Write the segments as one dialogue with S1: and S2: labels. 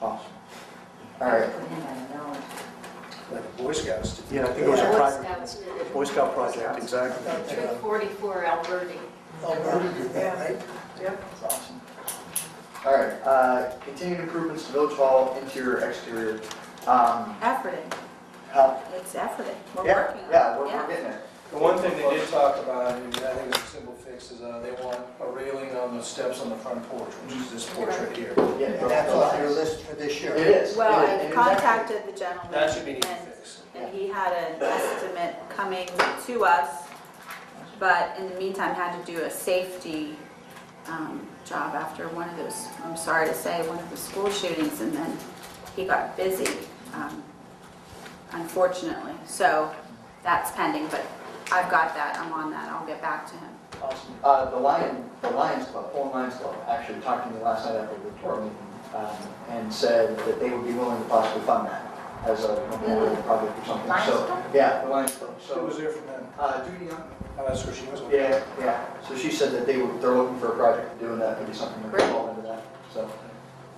S1: Awesome. All right,
S2: Put him at a dollar.
S1: like the Boy Scouts did.
S3: Yeah, I think it was a
S4: Boy
S3: private,
S4: Scouts did
S3: Boy
S4: it.
S3: Scout project, exactly.
S4: Troop 44 Alberti.
S5: Alberta did that, right?
S2: Yep.
S1: That's awesome. All right, uh, continued improvements to Village Hall interior, exterior. Um,
S2: Efforting,
S1: how-
S2: it's efforting, we're
S1: Yeah,
S2: working on it.
S1: yeah, we're, we're getting it.
S5: The one thing they did talk about, and I think it's a simple fix, is uh, they want a railing on the steps on the front porch, which is this porch right here.
S1: Yeah,
S5: And
S1: no,
S5: that's
S1: no,
S5: on
S1: it
S5: your
S1: is.
S5: list for this year.
S1: It is.
S2: Well,
S1: it is,
S2: I
S1: it is
S2: contacted the gentleman.
S5: That should be an easy
S2: and-
S5: fix.
S2: And he had an estimate coming to us, but in the meantime had to do a safety um, job after one of those, I'm sorry to say, one of the school shootings, and then he got busy, um, unfortunately. So that's pending, but I've got that, I'm on that, I'll get back to him.
S1: Awesome. Uh, the Lion, the Lions Club, Fulham Lions Club, actually talked to me last night after the tour meeting, um, and said that they would be willing to possibly fund that as a memorial project or something,
S2: Lions
S1: so.
S2: Club?
S1: Yeah, the Lions Club,
S5: She was
S1: so,
S5: there from then.
S1: uh, Judy Young.
S5: Oh, That's where she was.
S1: Yeah, yeah, so she said that they were, they're looking for a project to do, and that could be something that could fall into that, so.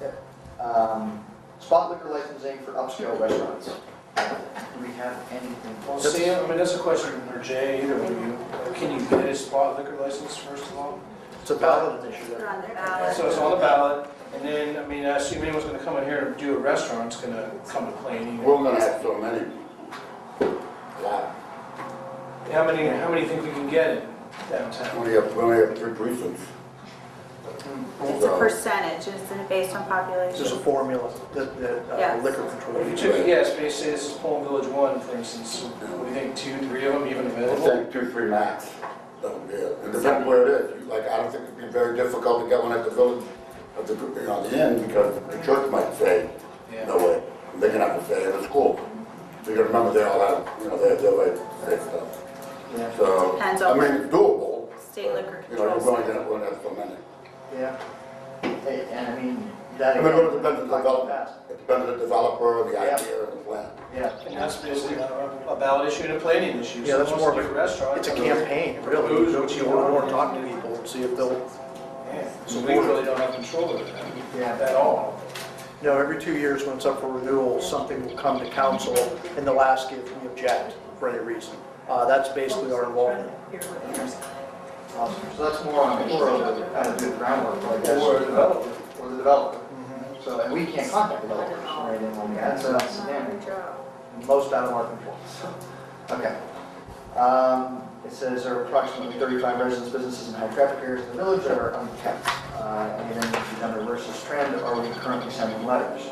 S1: yeah. Um, Spot liquor licensing for upscale restaurants. Do we have anything?
S5: Well, Sam, I mean, that's a question for Jay, either of you. Can you get a spot liquor license first of all?
S3: It's a ballot initiative.
S2: They're on their
S5: So
S2: ballot.
S5: it's on the ballot, and then, I mean, I assume anyone's gonna come in here and do a restaurant's gonna come to play. either.
S6: We're gonna have so many. Wow.
S5: How many, how many think we can get in downtown?
S6: We have, we only have three precincts.
S1: Hmm.
S2: It's a percentage, isn't it, based on
S3: There's a
S2: population?
S3: formula that, that uh,
S2: Yes.
S3: liquor control.
S5: If you took a guess, maybe say this is E Palm Village One, for instance, would you think two, three of them even
S6: I
S5: available?
S6: think two, three max. That'll be it. It depends where it is. You- Like, I don't think it'd be very difficult to get one at the village, at the, you know, the inn, because the church might say, no
S5: Yeah.
S6: way. They're gonna have to say, it's cool. So you gotta remember, they all have, you know, they have their way to say stuff.
S1: Yeah,
S6: So,
S2: Depends
S6: I
S2: on
S6: mean, it's doable.
S2: State liquor
S6: but, You know,
S2: controls.
S6: you're only gonna, only have so many.
S1: yeah. Hey, And I mean, that.
S6: I mean, it depends on the
S1: Like
S6: developer,
S1: that.
S6: it depends on the developer, the
S1: Yeah.
S6: idea, and the plan.
S1: Yeah,
S5: And that's basically not a a ballot issue and a planning issue.
S3: Yeah, that's
S5: Someone
S3: more
S5: wants to
S3: of
S5: do a restaurant.
S3: It's a
S5: come in,
S3: campaign, really. You go to your door and talk to people and see if they'll,
S5: Yeah, So we really don't have control over that
S1: yeah.
S5: at all.
S3: you know, every two years when it's up for renewal, something will come to council and they'll ask if we object for any reason. Uh, that's basically our involvement.
S1: Awesome. So that's more on the borough to kind of do the groundwork, I guess.
S5: Or a developer. Mm-hmm.
S1: Or the developer. So, and we can't contact developers or anything like that, so that's, yeah, most out of our control. Okay. Um, It says there are approximately 35 residents, businesses, and high traffic areas in the village that are unkept. Uh, And then if you've done a versus trend, are we currently sending letters?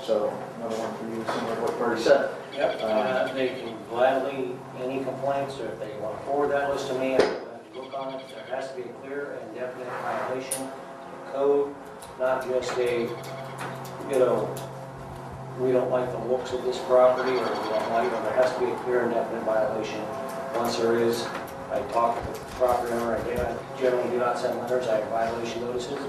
S1: So another one for you, similar to what Bertie said.
S7: Yep, uh, they can gladly, any complaints, or if they want to forward that list to me, I will have to look on it. There has to be a clear and definite violation of code, not just a, you know, we don't like the looks of this property, or we don't like, or there has to be a clear and definite violation. Once there is, I talk to the property owner, I do- I generally do not send letters, I have violation notices.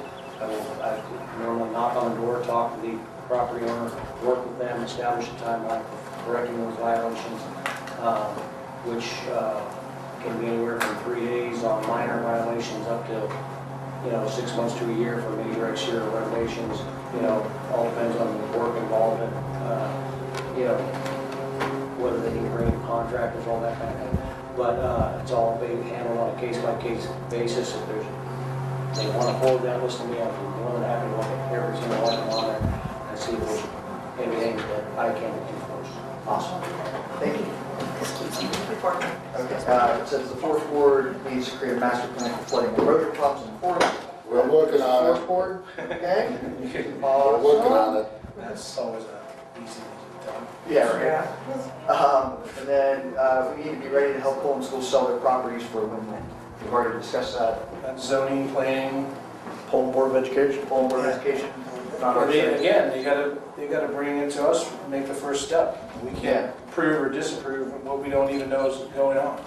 S7: I will, I normally knock on the door, talk to the property owner, work with them, establish a timeline for correcting those violations, um, which uh, can be anywhere from three days on minor violations up to you know, six months to a year for major exterior renovations, you know, all depends on the work involved and, uh, you know, whether they need to bring in contractors, all that kind of thing. But, uh, it's all being handled on a case-by-case basis. If there's, they want to hold that list to me, I'd be more than happy to look at every single item on there and see if there's anything that I can enforce.
S1: Awesome. Thank you. Okay, uh, It says the fourth ward needs to create a master plan for flooding and erosion problems in the fourth.
S6: We're working on it.
S1: Fourth ward, okay?
S6: We're working on it.
S5: That's always a easy thing to tell.
S1: Yeah, right. Um, and then, uh, we need to be ready to help Pullman schools sell their properties for win-win. We've already discussed that,
S5: That's zoning, planning,
S3: Poland Board of Education.
S1: Pullman Board of Education, not
S5: Or
S1: our
S5: they,
S1: thing.
S5: again, they gotta, they gotta bring it to us, make the first step. We
S1: Yeah.
S5: can't prove or disapprove what we don't even know is going on.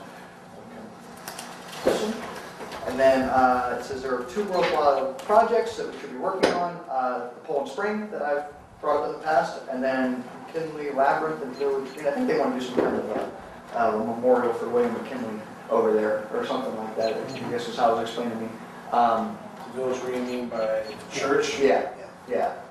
S1: And then, uh, it says there are two worthwhile projects that we should be working on, uh, the Pullman Spring that I've brought up in the past, and then McKinley Labyrinth and Village Green. I think they want to do some kind of, uh, uh, memorial for William McKinley over there, or something like that, I guess is how it was explained to me. Um,
S5: The village reunion by church.
S1: yeah, yeah.